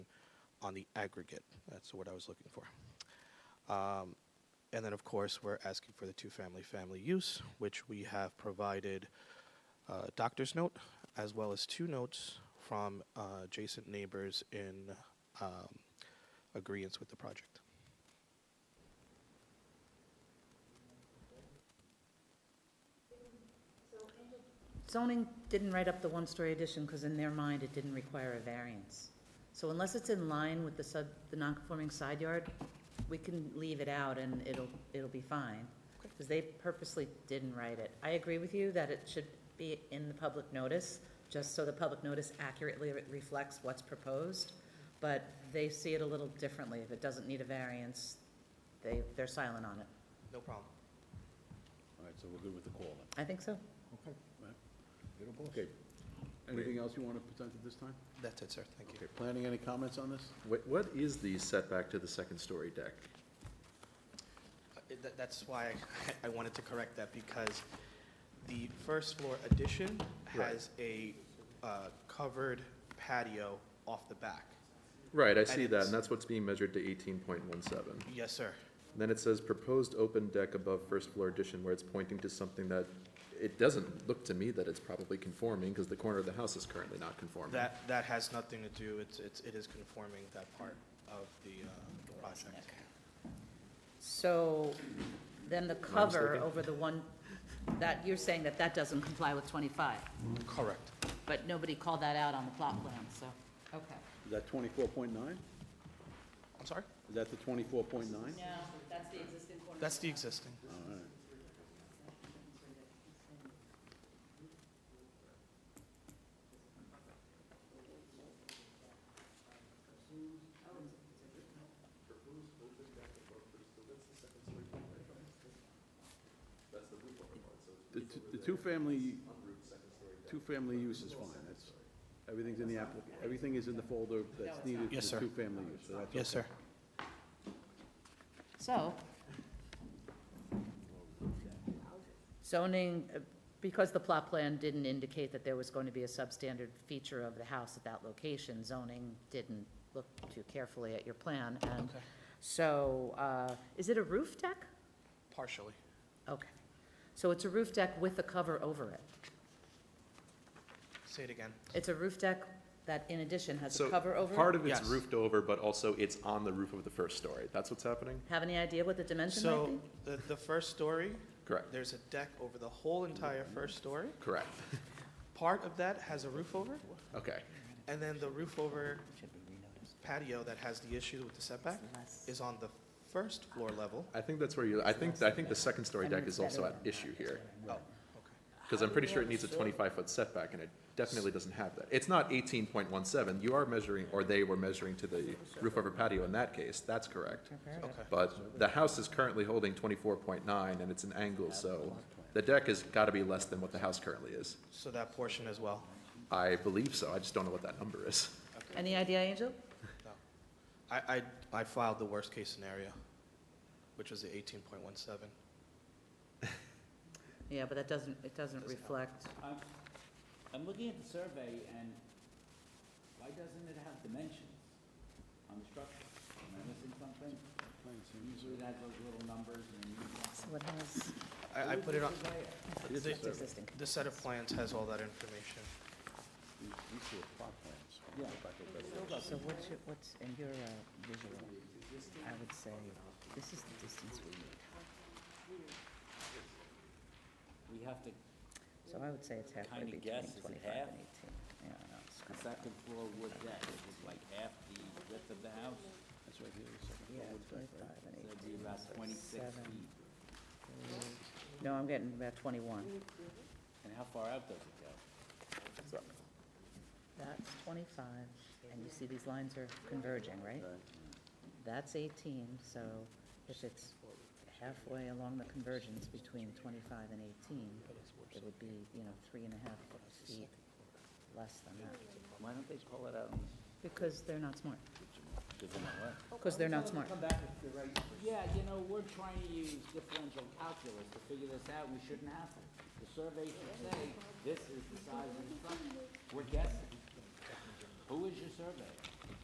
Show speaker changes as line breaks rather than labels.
on the aggregate. That's what I was looking for. Um, and then, of course, we're asking for the two-family family use, which we have provided uh, doctor's note as well as two notes from uh, adjacent neighbors in um, agreement with the project.
Zoning didn't write up the one-story addition because in their mind, it didn't require a variance. So unless it's in line with the sub, the non-conforming side yard, we can leave it out and it'll, it'll be fine. Because they purposely didn't write it. I agree with you that it should be in the public notice, just so the public notice accurately re- reflects what's proposed. But they see it a little differently. If it doesn't need a variance, they, they're silent on it.
No problem.
All right, so we're good with the call then.
I think so.
Okay. Okay. Anything else you want to present at this time?
That's it, sir. Thank you.
Okay, planning, any comments on this?
Wait, what is the setback to the second-story deck?
Uh, tha- That's why I wanted to correct that, because the first floor addition
Right.
has a uh, covered patio off the back.
Right, I
And
see that,
it's-
and that's what's being measured to eighteen point one seven.
Yes, sir.
Then it says proposed open deck above first floor addition, where it's pointing to something that, it doesn't look to me that it's probably conforming, because the corner of the house is currently not conforming.
That, that has nothing to do, it's, it's- it is conforming that part of the uh, project.
So then the cover over the one, that, you're saying that that doesn't comply with 25,
Correct.
but nobody called that out on the plot plan, so, okay.
Is that twenty-four point nine?
I'm sorry?
Is that the twenty-four point nine?
No, that's the existing corner.
That's the existing.
All right. The, t- the two-family, two-family use is fine, that's, everything's in the applic, everything is in the folder that's needed
Yes,
for
sir.
two-family use, so that's okay.
Yes, sir.
So. Zoning, uh, because the plot plan didn't indicate that there was going to be a substandard feature of the house at that location, zoning didn't look too carefully at your plan, and
Okay.
so, uh, is it a roof deck?
Partially.
Okay. So it's a roof deck with a cover over it?
Say it again.
It's a roof deck that in addition has a
So,
cover over it?
Part of it's
Yes.
roofed over, but also it's on the roof of the first story, that's what's happening?
Have any idea what the dimension might
So
be?
the, the first story,
Correct,
there's a deck over the whole entire first story.
correct,
Part of that has a roof over,
okay.
and then the roof over patio that has the issue with the setback is on the first floor level.
I think that's where you, I think, I think the second-story
I mean,
deck
it's
is also
better
at
than
issue here.
Oh, okay.
Because I'm pretty sure it needs a twenty-five foot setback, and it definitely doesn't have that. It's not eighteen point one seven, you are measuring, or they were measuring to the roof over patio in that case, that's correct.
Okay.
But the house is currently holding twenty-four point nine, and it's an angle, so the deck has gotta be less than what the house currently is.
So that portion as well?
I believe so, I just don't know what that number is.
Any idea, Angel?
No. I, I, I filed the worst-case scenario, which was the eighteen point one seven.
Yeah, but that doesn't, it doesn't
Doesn't help.
reflect.
I'm, I'm looking at the survey and why doesn't it have dimensions on the structure? Am I missing something? Usually it has those little numbers and.
So it has,
I, I put it on,
It is
the,
a
it's existing.
the set of plans has all that information.
These these two are plot plans.
Yeah.
Back up there.
So what's, your- what's, in your uh, visual, I would say, this is the distance we need.
We have to,
So I would say it's halfway
Kinda
between
guess, is it
25 and 18.
half?
Yeah, no, it's
the
kind of-
second floor wood deck, which is like half the width of the house,
That's right here, the second
Yeah,
floor wood deck, right?
25 and
so
18.
it'd be about
so
twenty-six
seven,
feet.
eight. No, I'm getting about 21.
And how far out does it go?
That's 25, and you see these lines are converging, right? That's 18, so if it's halfway along the convergence between 25 and 18, it would be, you know, three and a half feet less than that.
Why don't they pull it out?
Because they're not smart.
Does it not work?
Because they're not smart.
Yeah, you know, we're trying to use differential calculus to figure this out, we shouldn't have to. The survey should say, this is the size of the structure, we're guessing. Who is your survey?